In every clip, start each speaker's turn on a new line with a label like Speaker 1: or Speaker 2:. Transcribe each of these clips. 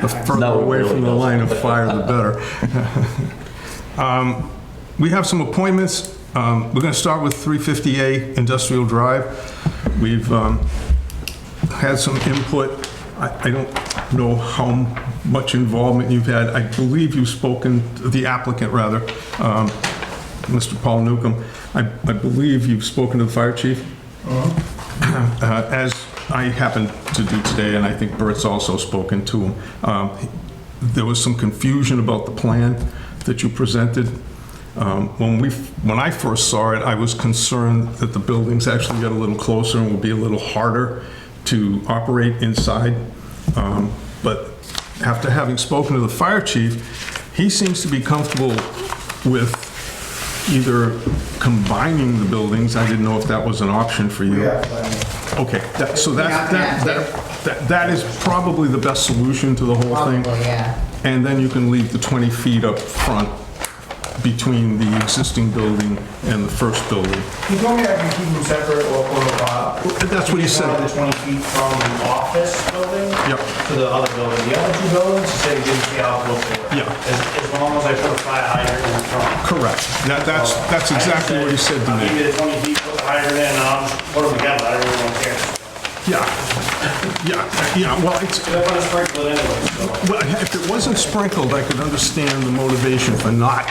Speaker 1: The further away from the line of fire, the better. Um, We have some appointments. Um, We're going to start with 350A Industrial Drive. We've um, had some input. I I don't know how much involvement you've had. I believe you've spoken, the applicant rather, um, Mr. Paul Newcomb. I I believe you've spoken to the fire chief. Uh, As I happened to do today, and I think Bert's also spoken to him, um, there was some confusion about the plan that you presented. Um, When we, when I first saw it, I was concerned that the buildings actually got a little closer and would be a little harder to operate inside. Um, But after having spoken to the fire chief, he seems to be comfortable with either combining the buildings, I didn't know if that was an option for you. Okay, that- so that, that, that- that, that is probably the best solution to the whole thing.
Speaker 2: Probably, Oh, yeah.
Speaker 1: And then you can leave the 20 feet up front between the existing building and the first building.
Speaker 3: He told me I can keep them separate or, or, uh.
Speaker 1: That's what he said.
Speaker 3: The twenty feet from the office building.
Speaker 1: Yep.
Speaker 3: To the other building. The other two buildings, he said he didn't see how it looked. there.
Speaker 1: Yeah.
Speaker 3: As, as long as I put a fire hydrant in front.
Speaker 1: Correct. That, that's, that's
Speaker 3: I just
Speaker 1: exactly what he said to
Speaker 3: I'll give
Speaker 1: me.
Speaker 3: you the twenty feet, put the hydrant in, and I'll just put them together, I really don't care.
Speaker 1: Yeah, yeah, yeah, well, it's,
Speaker 3: Cause I put a sprinkler in anyway, so.
Speaker 1: Well, if it wasn't sprinkled, I could understand the motivation for not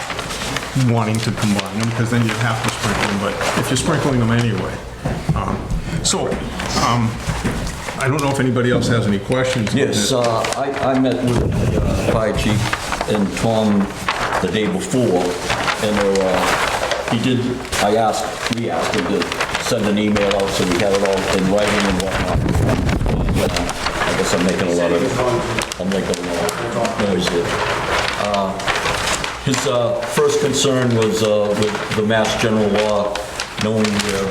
Speaker 1: wanting to combine them, because then you'd have to sprinkle them, but if you're sprinkling them anyway. um, So, um, I don't know if anybody else has any questions. on
Speaker 4: Yes,
Speaker 1: this.
Speaker 4: uh, I I met with the uh, fire chief and Tom the day before, and there, uh, he did, I asked, we asked him to send an email out, so we had it all in writing and whatnot. And, uh, I guess I'm making a lot of, I'm making a lot of noise here. Uh, His uh, first concern was uh, with the mass general law, knowing where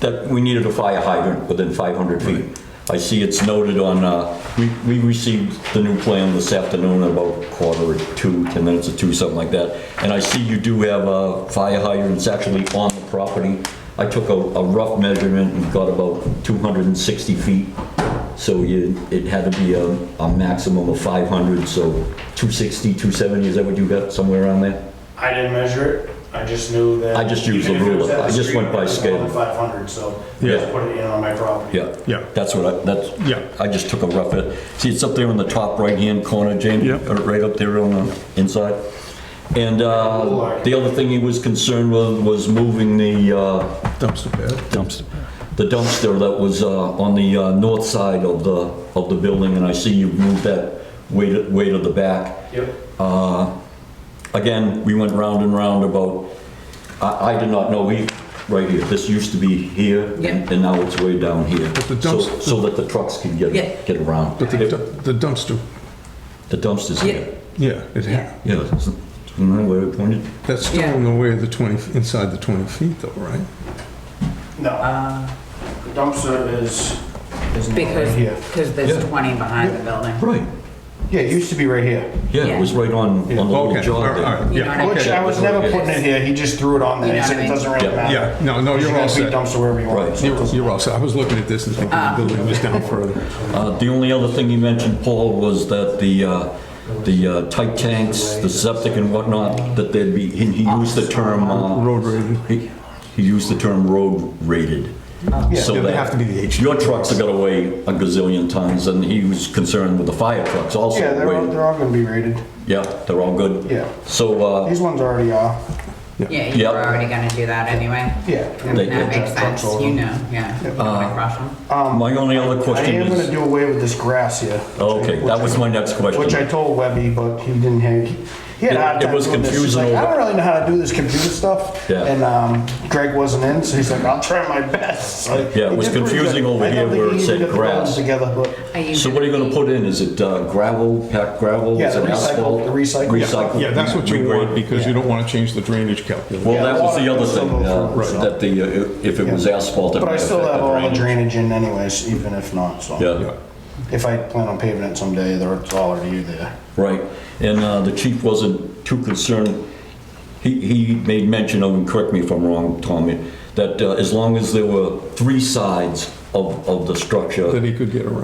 Speaker 4: that we needed a fire hydrant within 500 feet. I see it's noted on, uh, we we received the new plan this afternoon at about quarter to two, 10 minutes to two, something like that. And I see you do have uh, fire hydrants actually on the property. I took a a rough measurement and got about 260 feet. So you- it had to be a a maximum of 500, so 260, 270, is that what you got, somewhere around there?
Speaker 3: I didn't measure it, I just knew that.
Speaker 4: I just used the
Speaker 3: even if it was at
Speaker 4: ruler.
Speaker 3: the
Speaker 4: I just
Speaker 3: street,
Speaker 4: went by
Speaker 3: it was
Speaker 4: scale.
Speaker 3: only 500, so I
Speaker 4: Yeah.
Speaker 3: just put it in on my property.
Speaker 4: Yeah.
Speaker 1: Yeah.
Speaker 4: That's what I, that's.
Speaker 1: Yeah.
Speaker 4: I just took a rough, it. see, it's up there in the top right-hand corner, Jamie?
Speaker 1: Yeah.
Speaker 4: or Right up there on the inside. And uh, the other thing he was concerned with was moving the, uh,
Speaker 1: Dumpster pad.
Speaker 4: dumpster. The dumpster that was uh, on the uh, north side of the, of the building, and I see you've moved that way to, way to the back.
Speaker 3: Yep.
Speaker 4: Uh, Again, we went round and round about, I, I did not know, we, right here, this used to be here, and
Speaker 2: Yeah.
Speaker 4: and now it's way down here.
Speaker 1: the
Speaker 4: So
Speaker 1: dumps-
Speaker 4: so that the trucks can get,
Speaker 2: Yeah.
Speaker 4: get around.
Speaker 1: But the dump- the dumpster,
Speaker 4: The dumpster's
Speaker 2: Yeah,
Speaker 4: here.
Speaker 1: yeah, it
Speaker 2: Yeah.
Speaker 1: had,
Speaker 4: Yeah, it's- remember where it pointed?
Speaker 1: that's still in the way of the 20, inside the 20 feet though, right?
Speaker 3: No.
Speaker 1: Uh,
Speaker 3: The dumpster is, is not right
Speaker 2: because,
Speaker 3: here.
Speaker 2: because there's
Speaker 4: Yeah.
Speaker 2: 20 behind the building.
Speaker 4: Right.
Speaker 3: Yeah, it used to be right here.
Speaker 4: Yeah, it was right on, on the little
Speaker 1: Okay, all
Speaker 4: jog
Speaker 1: right, all
Speaker 4: there.
Speaker 1: right,
Speaker 2: You
Speaker 1: yeah,
Speaker 2: know what I
Speaker 3: Which
Speaker 2: mean?
Speaker 3: I was never putting it here, he just threw it on there, he said it doesn't really matter.
Speaker 1: yeah, no, no, you're all
Speaker 3: You
Speaker 1: set.
Speaker 3: can dumps wherever you want. so it
Speaker 1: You're
Speaker 3: doesn't-
Speaker 1: you're all set, I was looking at this and thinking the building was down further.
Speaker 4: Uh, The only other thing you mentioned, Paul, was that the, uh, the uh, tight tanks, the septic and whatnot, that they'd be, he he used the term... uh,
Speaker 1: Road rated.
Speaker 4: he- He used the term road rated. So
Speaker 3: Oh,
Speaker 1: Yeah, they
Speaker 4: that
Speaker 1: have to be the H.
Speaker 4: Your trucks have got away a gazillion times, and he was concerned with the fire trucks also.
Speaker 3: Yeah, they're all,
Speaker 4: rated.
Speaker 3: they're all gonna be rated.
Speaker 4: Yeah, they're all good?
Speaker 3: Yeah.
Speaker 4: So, uh,
Speaker 3: These ones already are,
Speaker 2: Yeah, you
Speaker 4: Yeah.
Speaker 2: were already gonna do that anyway.
Speaker 3: yeah. and
Speaker 4: They-
Speaker 2: That makes sense, you know, yeah.
Speaker 4: Uh,
Speaker 2: You wanna crush 'em.
Speaker 4: my only other
Speaker 3: Um, I
Speaker 4: question
Speaker 3: am gonna
Speaker 4: is,
Speaker 3: do away with this grass here.
Speaker 4: okay, that was my next question.
Speaker 3: Which I told Webby, but he didn't have, he had a hard
Speaker 4: It- it
Speaker 3: time
Speaker 4: was
Speaker 3: doing this. He's like,
Speaker 4: confusing
Speaker 3: I
Speaker 4: over-
Speaker 3: don't really know how to do this computer stuff.
Speaker 4: Yeah.
Speaker 3: And um, Greg wasn't in, so he's like, I'll try my best. So
Speaker 4: Yeah, it
Speaker 3: he
Speaker 4: was
Speaker 3: did pretty
Speaker 4: confusing
Speaker 3: good.
Speaker 4: over
Speaker 3: I don't
Speaker 4: here
Speaker 3: think
Speaker 4: where
Speaker 3: he
Speaker 4: it
Speaker 3: even
Speaker 4: said
Speaker 3: got the buttons
Speaker 4: grass.
Speaker 3: Together, but
Speaker 2: I used
Speaker 4: So what are you gonna put in? Is it uh, gravel, packed gravel?
Speaker 3: Yeah,
Speaker 4: Is
Speaker 3: the
Speaker 4: it
Speaker 3: recycle-
Speaker 4: asphalt?
Speaker 3: the recycle.
Speaker 4: Recycle.
Speaker 1: Yeah, that's what you
Speaker 4: Regrade.
Speaker 1: want, because you don't want to change the drainage calculation.
Speaker 4: Well, that was the
Speaker 3: Yeah,
Speaker 4: other
Speaker 3: water.
Speaker 4: thing, uh,
Speaker 3: Right.
Speaker 4: that the, uh, if it was asphalt. it
Speaker 3: but I
Speaker 4: might
Speaker 3: still
Speaker 4: affect
Speaker 3: have all the
Speaker 4: drainage.
Speaker 3: drainage in anyways, even if not, so.
Speaker 4: Yeah,
Speaker 3: If I plan on paving it someday, there- it's already there.
Speaker 4: right. And uh, the chief wasn't too concerned. He, he made mention of, and correct me if I'm wrong, Tommy, that uh, as long as there were three sides of, of the structure.
Speaker 1: That he could get around.